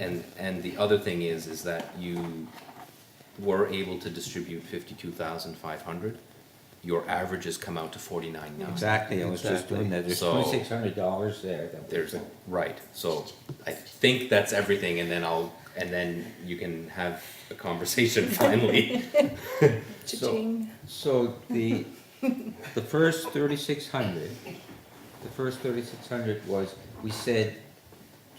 and, and the other thing is, is that you were able to distribute fifty-two thousand five hundred. Your averages come out to forty-nine now. Exactly, I was just doing that, there's So- twenty-six hundred dollars there. that we- There's, right, so I think that's everything, and then I'll, and then you can have a conversation finally. So, so the, the first thirty-six hundred, the first thirty-six hundred was, we said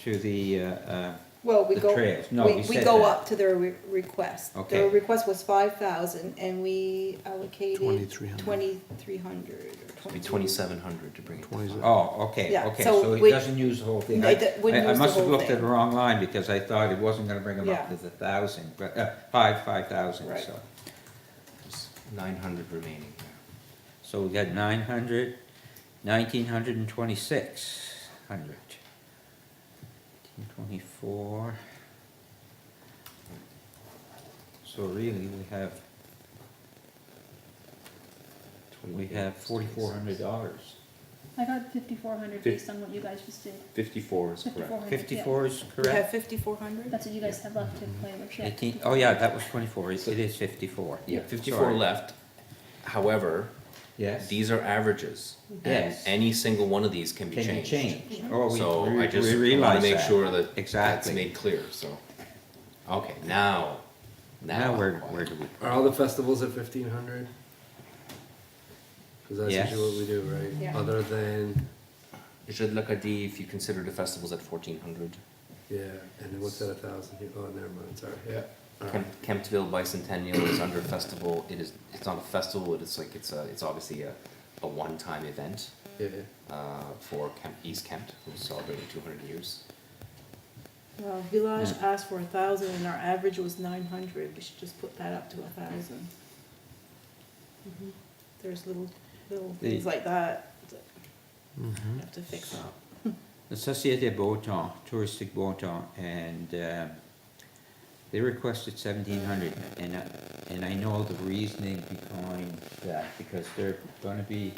to the, uh, uh, Well, we The go, trails. No, we, you we said go that. up to their re- request. Okay. Their request was five thousand and we allocated 2,300. twenty-three hundred or It'd be twenty. twenty-seven hundred to bring it. to Twenty- five. oh, okay, Yeah, okay, so so it we- doesn't use the whole thing. No, I- it d- wouldn't I- use the I whole must have looked at thing. the wrong line, because I thought it wasn't gonna bring them up to Yeah. the thousand, but, uh, five, five thousand, Right. so. There's Nine hundred remaining there. So we got nine hundred, nineteen hundred and twenty-six hundred. Twenty-four. So really, we have, we have forty-four hundred dollars. I got fifty-four hundred Fif- based on what you guys just did. Fifty-four is Fifty-four correct. hundred. Fifty-four is We have correct? fifty-four hundred? That's what you guys have left to play with, yeah. Eighteen, oh yeah, that was twenty-four, it it is fifty-four. Yeah, fifty-four Sorry. left. However, Yes. these are averages, and Yes. any single one of these can be Can be changed. changed. Oh, we- So I we, just we wanna realize make that. sure that that's Exactly. made clear, so. Okay, now, now. Now, I'm where, quiet. where do we? Are all the festivals at fifteen hundred? Cause that's Yes. usually what we do, right? Yeah. Other than, You should look at the, if you consider the festivals at fourteen hundred. yeah, and then what's that, a thousand? Oh, never mind, sorry, yeah. All right. Kemp, Kemptville Bicentennial is under festival, it is, it's not a festival, it is like, it's a, it's obviously a, a one-time event, Yeah, uh, for Kemp, East Kemp, who's celebrating two hundred years. Well, Village Yeah. asked for a thousand and our average was nine hundred. We should just put that up to a thousand. Mm-hmm. There's little, little The- things like that that Mm-hmm. we have to fix up. the Société Beauton, Touristic Beauton, and uh, they requested seventeen hundred, and I, and I know the reasoning behind that, because they're gonna be,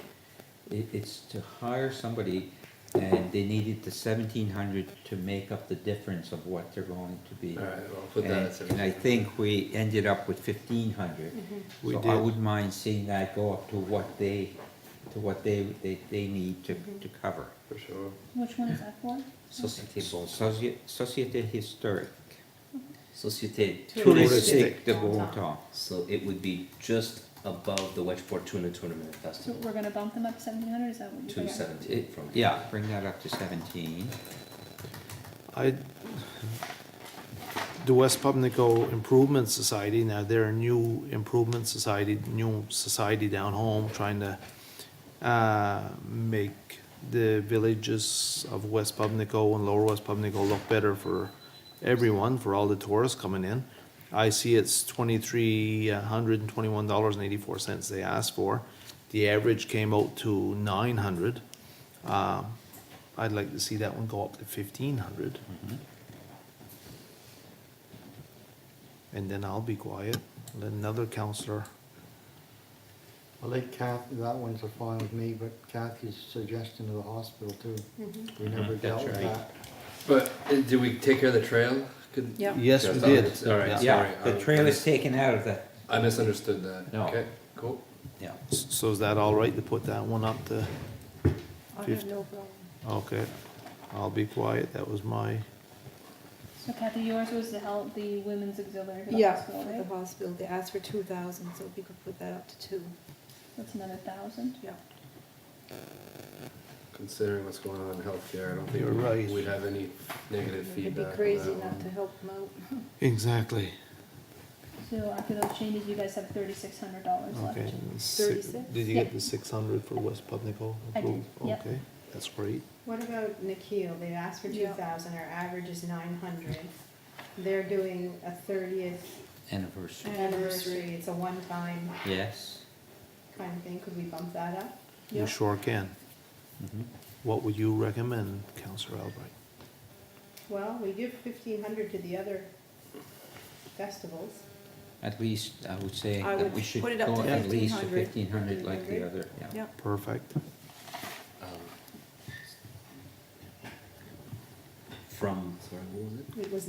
it, it's to hire somebody, and they needed the seventeen hundred to make up the difference of what they're going to be. all right, well, put that And- at seventeen. And I think we ended up with fifteen hundred. We So I did. wouldn't mind seeing that go up to what they, to what they, they, they need to, to cover. For sure. Which one is that for? Société Bonton. Soci- Société historique. Société Touristique de Bon Temps. So it would be just above the Wedge Fortuna Tournament So Festival, we're gonna bump them up seventeen hundred, is that what you two got? seventeen It- from. Yeah, bring that up to seventeen. I, the West Pubnico Improvement Society, now they're a new improvement society, new society down home, trying to uh, make the villages of West Pubnico and Lower West Pubnico look better for everyone, for all the tourists coming in. I see it's twenty-three hundred and twenty-one dollars and eighty-four cents they asked for. The average came out to nine hundred. um, I'd like to see that one go up to fifteen hundred. Mm-hmm. And then I'll be quiet, let another counselor. I think Kath, that one's a fine with me, but Kathy's suggestion to the hospital too. Mm-hmm. We never Mhm. dealt with That's right. that. But, uh, did we take care of the trail? Could- Yeah. Yes, we Yes, did. it's- all right, Yeah. it's- Yeah, Sorry, the I- trail is taken out of that, I misunderstood that. No. Okay, cool. yeah. S- So is that all right to put that one up to, I have Fifty. no problem. okay, I'll be quiet, that was my, So Kathy, yours was the health, the women's auxiliary for the Yeah, hospital, for the right? hospital. They asked for two thousand, so we could put that up to two, That's another thousand. yeah. Considering what's going on in healthcare, I don't You're right. think we'd have any negative It'd be feedback on crazy that not to one. help them out. exactly, So after those changes, you guys have thirty-six hundred dollars left. okay. si- Thirty-six? Did you Yeah. get the six hundred for West Pubnico? I did, yeah. Okay, that's great. What about Nikhil? They've asked for two Yeah. thousand, our average is nine hundred. They're doing a thirtieth Anniversary, Anniversary. anniversary, it's a one-time yes. kind of thing, could we bump that up? You Yeah. sure can. Mhm. What would you recommend, Counselor Albright? Well, we give fifteen hundred to the other festivals. At least, I would say I that would we should put it up go to at least to 1500. fifteen hundred like the other, yeah. Yeah, Perfect. From, sorry, what was it? It was